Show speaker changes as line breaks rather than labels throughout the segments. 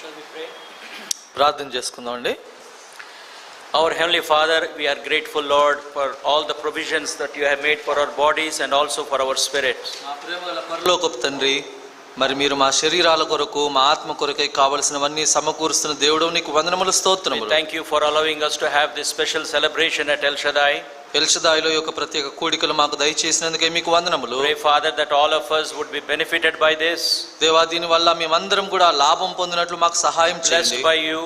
Shall we pray?
ప్రార్థన చేసుకుందామండి Our Heavenly Father, we are grateful, Lord, for all the provisions that you have made for our bodies and also for our spirit.
మా ప్రేమ గల పరలో
పరలోకపు తండ్రి మరి మీరు మా శరీరాల కొరకు మా ఆత్మ కొరకై కావలసినవన్నీ సమకూరుస్తున్న దేవుడు నీకు వందనములు
We
స్తోత్రములు
thank you for allowing us to have this special celebration at El Shaddai.
ఎల్షదాయిలో యొక్క ప్రత్యేక కూడికలు మాకు దయచేసినందుకే మీకు
Oh.
వందనములు
Pray, Father, that all of us would be benefited by this,
దేవా దీని వల్ల మేమందరం కూడా లాభం పొందినట్లు మాకు సహాయం
blessed
చేయండి
by you,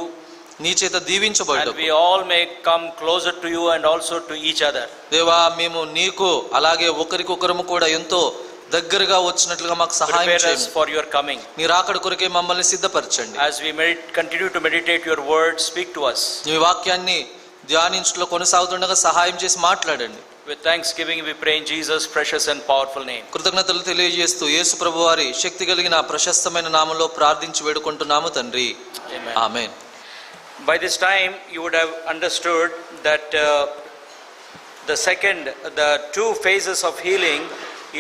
నీ చేత
and
దీవించబడు
we all may come closer to you and also to each other.
దేవా మేము నీకు అలాగే ఒకరికొకరము కూడా ఎంతో దగ్గరగా వచ్చినట్లుగా మాకు సహాయం
Prepare us
చేయండి
for your coming.
నీ రాకడ కొరకే మమ్మల్ని సిద్ధపరచండి
As we med- continue to meditate your word, speak to us.
నీ వాక్యాన్ని ధ్యానించుట్లో కొనసాగుతుండగా సహాయం చేసి మాట్లాడండి
With thanksgiving, we pray in Jesus' precious and powerful name.
కృతజ్ఞతలు తెలియజేస్తూ యేసు ప్రభువారి శక్తి కలిగిన ఆ ప్రశస్తమైన నామంలో ప్రార్థించి వేడుకుంటున్నాము తండ్రి
Amen.
ఆమె
By this time, you would have understood that uh, the second, the two phases of healing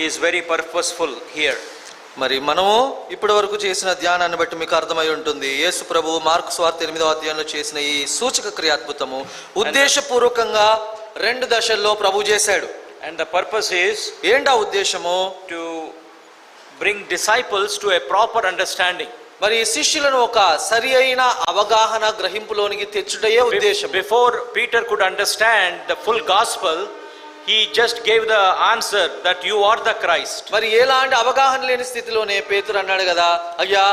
is very purposeful here.
మరి మనము ఇప్పటి వరకు చేసిన ధ్యానాన్ని బట్టి మీకు అర్థమై ఉంటుంది యేసు ప్రభు మార్కు స్వార్థ ఎనిమిదవ అధ్యాయంలో చేసిన ఈ సూచక క్రియ అద్భుతము ఉద్దేశపూర్వకంగా రెండు దశల్లో ప్రభు చేశాడు
And the purpose is
ఏంటా ఉద్దేశము
to bring disciples to a proper understanding.
మరి శిష్యులను ఒక సరి అయిన అవగాహన గ్రహింపులోనికి తెచ్చుటయే
Be-
ఉద్దేశం
Before Peter could understand the full gospel, he just gave the answer that you are the Christ.
మరి ఎలాంటి అవగాహన లేని స్థితిలోనే పేతురు అన్నాడు కదా అయ్యా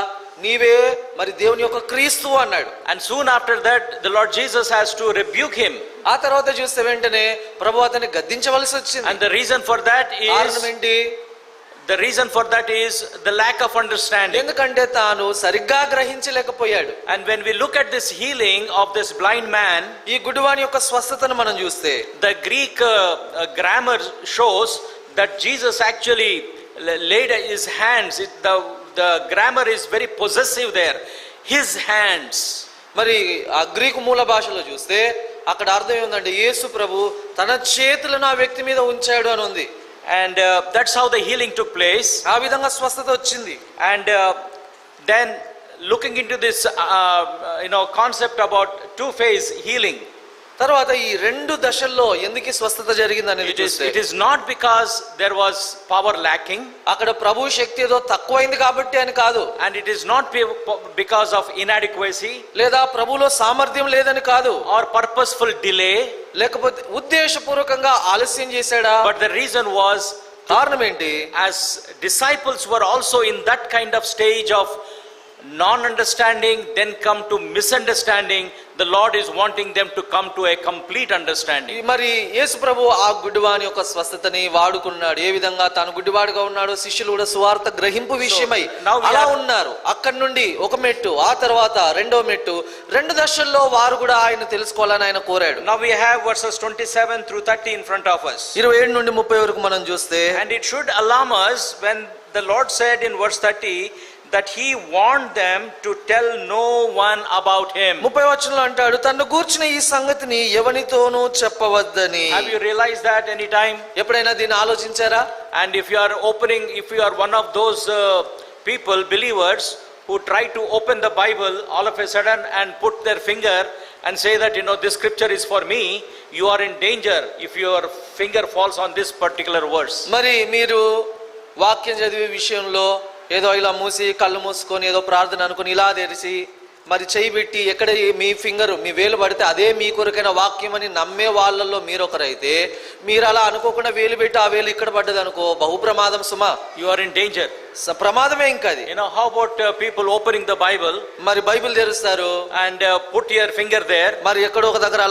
నీవే మరి దేవుని యొక్క క్రీస్తు అన్నాడు
And soon after that, the Lord Jesus has to rebuke him.
ఆ తర్వాత చూస్తే వెంటనే ప్రభు అతన్ని గద్దించవలసి వచ్చింది
And the reason for that
కారణం
is
ఏంటి
The reason for that is the lack of understanding.
ఎందుకంటే తాను సరిగ్గా గ్రహించలేకపోయాడు
And when we look at this healing of this blind man,
ఈ గుడివాని యొక్క స్వస్థతను మనం చూస్తే
the Greek uh, uh, grammar shows that Jesus actually la- laid his hands. It, the, the grammar is very possessive there. His hands.
మరి ఆ Greek మూల భాషలో చూస్తే అక్కడ అర్థం ఏందంటే యేసు ప్రభు తన చేతులను ఆ వ్యక్తి మీద ఉంచాడు అని ఉంది
And uh, that's how the healing took place.
ఆ విధంగా స్వస్థత వచ్చింది
And uh, then looking into this uh, uh, you know concept about two phase healing
తర్వాత ఈ రెండు దశల్లో ఎందుకు ఈ స్వస్థత జరిగింది అనేది
it is
చూస్తే
it is not because there was power lacking
అక్కడ ప్రభు శక్తి ఏదో తక్కువైంది కాబట్టి అని కాదు
And it is not be- because of inadequacy
లేదా ప్రభులో సామర్థ్యం లేదని కాదు
or purposeful delay,
లేకపోతే ఉద్దేశపూర్వకంగా ఆలస్యం చేశాడా
but the reason was
కారణం ఏంటి
as disciples were also in that kind of stage of non understanding, then come to misunderstanding, the Lord is wanting them to come to a complete
ఈ
understanding.
మరి యేసు ప్రభు ఆ గుడ్డివాని యొక్క స్వస్థతని వాడుకున్నాడు ఏ విధంగా తాను గుడ్డివాడుగా ఉన్నాడో శిష్యులు కూడా సువార్త గ్రహింపు విషయమై
now we
అలా
are-
ఉన్నారు అక్కడి నుండి ఒక మెట్టు ఆ తర్వాత రెండో మెట్టు రెండు దశల్లో వారు కూడా ఆయన తెలుసుకోవాలని ఆయన కోరాడు
Now we have verses 27 through 30 in front of us.
ఇరవై ఏడు నుండి ముప్పై వరకు మనం చూస్తే
And it should alarm us when the Lord said in verse 30 that He warned them to tell no one about Him.
ముప్పై వచనంలో అంటాడు తను కూర్చున్న ఈ సంగతిని ఎవనితోనూ చెప్పవద్దని
Have you realized that any time?
ఎప్పుడైనా దీన్ని ఆలోచించారా
And if you are opening, if you are one of those uh, people, believers, who try to open the Bible all of a sudden and put their finger and say that, you know, this scripture is for me, you are in danger if your finger falls on this particular verse.
మరి మీరు వాక్యం చదివే విషయంలో ఏదో ఇలా మూసి కళ్ళు మూసుకొని ఏదో ప్రార్థన అనుకుని ఇలా తెరిచి మరి చేయి పెట్టి ఎక్కడ ఈ- మీ ఫింగర్ మీ వేలు పడితే అదే మీ కొరకైన వాక్యం అని నమ్మే వాళ్ళల్లో మీరొకరైతే మీరు అలా అనుకోకుండా వేలు పెట్టి ఆ వేలు ఇక్కడ పడ్డది అనుకో బహు ప్రమాదం సుమా
You are in danger.
స- ప్రమాదమే ఇంకా అది
You know, how about uh, people opening the Bible
మరి బైబిల్ తెరుస్తారు
and uh, put your finger there
మరి ఎక్కడో ఒక దగ్గర